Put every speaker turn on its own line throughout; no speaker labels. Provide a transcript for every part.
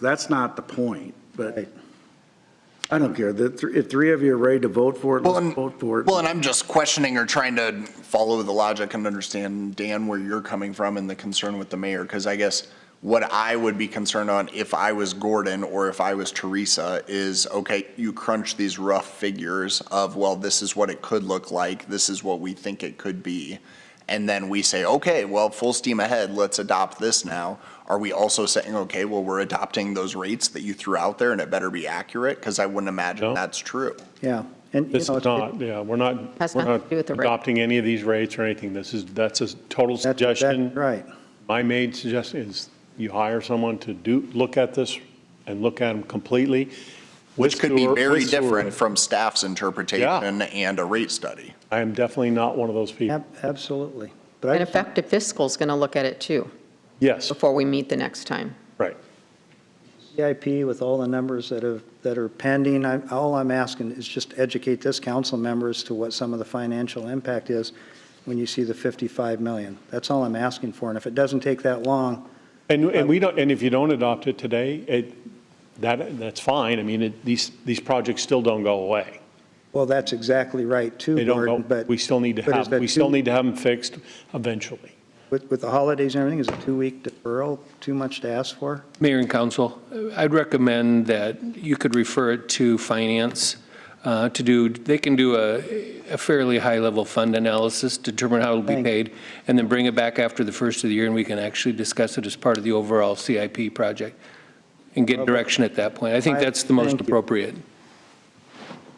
That's not the point, but I don't care. The, thr- if three of you are ready to vote for it,
Well,
let's
and,
vote for it.
well, and I'm just questioning or trying to follow the logic and understand, Dan, where you're coming from and the concern with the mayor, because I guess what I would be concerned on if I was Gordon or if I was Teresa is, okay, you crunch these rough figures of, well, this is what it could look like, this is what we think it could be. And then we say, okay, well, full steam ahead, let's adopt this now. Are we also saying, okay, well, we're adopting those rates that you threw out there and it better be accurate? Because I wouldn't imagine
No.
that's true.
Yeah. And, you
This
know,
is
it-
not, yeah, we're not,
Has
we're
nothing to
not
do with the rate.
adopting any of these rates or anything. This is, that's a total
that's, that's
suggestion.
right.
My main suggestion is you hire someone to do, look at this and look at them completely.
Which
with
could be
sewer-
very
with sewer.
different from staff's interpretation
Yeah.
and a rate study.
I am definitely not one of those people.
Ab- Absolutely. But I
And
just-
effective fiscal's going to look at it too,
Yes,
before we meet the next time.
right.
CIP with all the numbers that have, that are pending, I, all I'm asking is just educate this council member as to what some of the financial impact is when you see the 55 million. That's all I'm asking for, and if it doesn't take that long,
And, and we don't, and if you don't adopt it today, it, that, that's fine. I mean, it, these, these projects still don't go away.
well, that's exactly right too,
They
Gordon,
don't go,
but.
we still need to
but is
have,
that
we still
two-
need to have them fixed eventually.
With, with the holidays and everything, is a two-week deferral too much to ask for?
Mayor and council, I'd recommend that you could refer it to finance uh, to do, they can do a a fairly high-level fund analysis, determine how it'll be
Thank you.
paid, and then bring it back after the first of the year, and we can actually discuss it as part of the overall CIP project and get direction at that point. I think
I-
that's the most
thank you.
appropriate.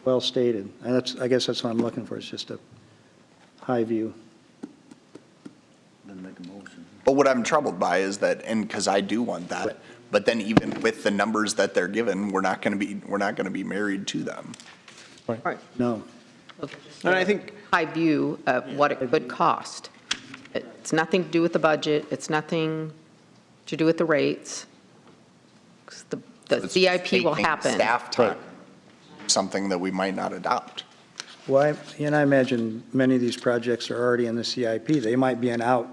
Well stated. And that's, I guess that's what I'm looking for, is just a high view.
But what I'm troubled by is that, and because I do want that, but then even with the numbers that they're given, we're not going to be, we're not going to be married to them.
All right.
No.
And I think. High view of what it could cost. It's nothing to do with the budget, it's nothing to do with the rates. 'Cause the- The
It's
CIP will
taking
happen.
Staff time, something that we might not adopt.
Well, I- and I imagine many of these projects are already in the CIP. They might be in out,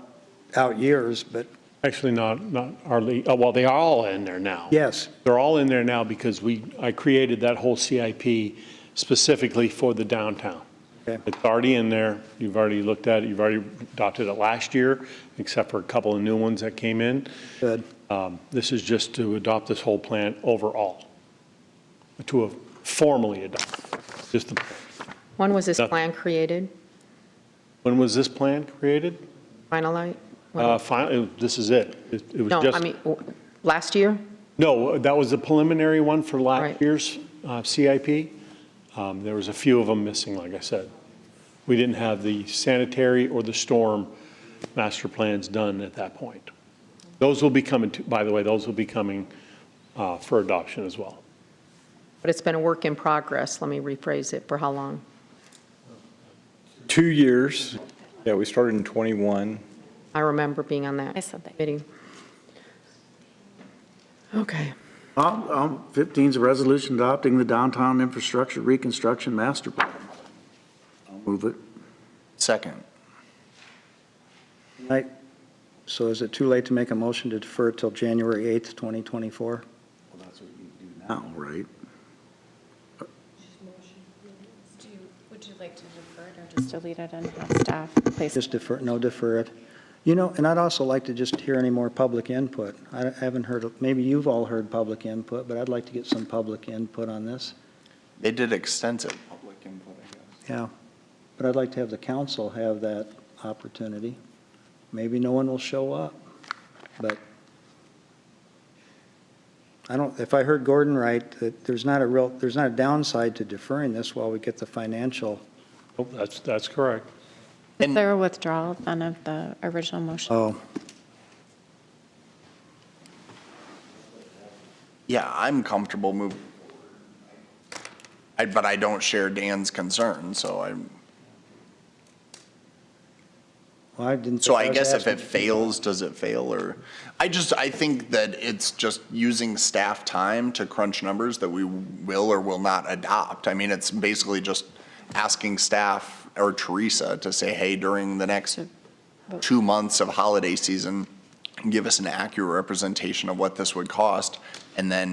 out years, but
Actually, not, not hardly, oh, well, they are all in there now.
yes,
They're all in there now because we, I created that whole CIP specifically for the downtown.
Okay.
It's already in there, you've already looked at it, you've already adopted it last year, except for a couple of new ones that came in.
good.
Um, This is just to adopt this whole plan overall, to have formally adopt. Just, the-
When was this
Nothing.
plan created,
when was this plan created?
finalized?
Uh, Finally, this is it. It it was
No, I
just,
mean, w- last year?
no, that was the preliminary one for last
Right.
year's uh, CIP. Um, There was a few of them missing, like I said. We didn't have the sanitary or the storm master plans done at that point. Those will be coming, to- by the way, those will be coming uh, for adoption as well.
But it's been a work in progress, let me rephrase it, for how long?
Two years. Yeah, we started in 21.
I remember being on that.
I said that.
Meeting. Okay.
Um, um, 15's a resolution adopting the downtown infrastructure reconstruction master plan. I'll move it.
Second,
Right. So is it too late to make a motion to defer it till January 8th, 2024? Well, that's what you do now. right?
Do you- Would you like to defer it or just delete it and have staff place?
Just defer, no, defer it. You know, and I'd also like to just hear any more public input. I haven't heard, maybe you've all heard public input, but I'd like to get some public input on this.
they did extensive public input, I guess.
Yeah, but I'd like to have the council have that opportunity. Maybe no one will show up, but I don't, if I heard Gordon right, that there's not a real, there's not a downside to deferring this while we get the financial.
Oh, That's, that's correct.
Is there a withdrawal then of the original motion?
Oh,
Yeah, I'm comfortable moving. I, but I don't share Dan's concern, so I'm,
well, I didn't.
So I
was
guess if it
asking-
fails, does it fail or, I just, I think that it's just using staff time to crunch numbers that we will or will not adopt. I mean, it's basically just asking staff or Teresa to say, hey, during the next two months of holiday season, give us an accurate representation of what this would cost and then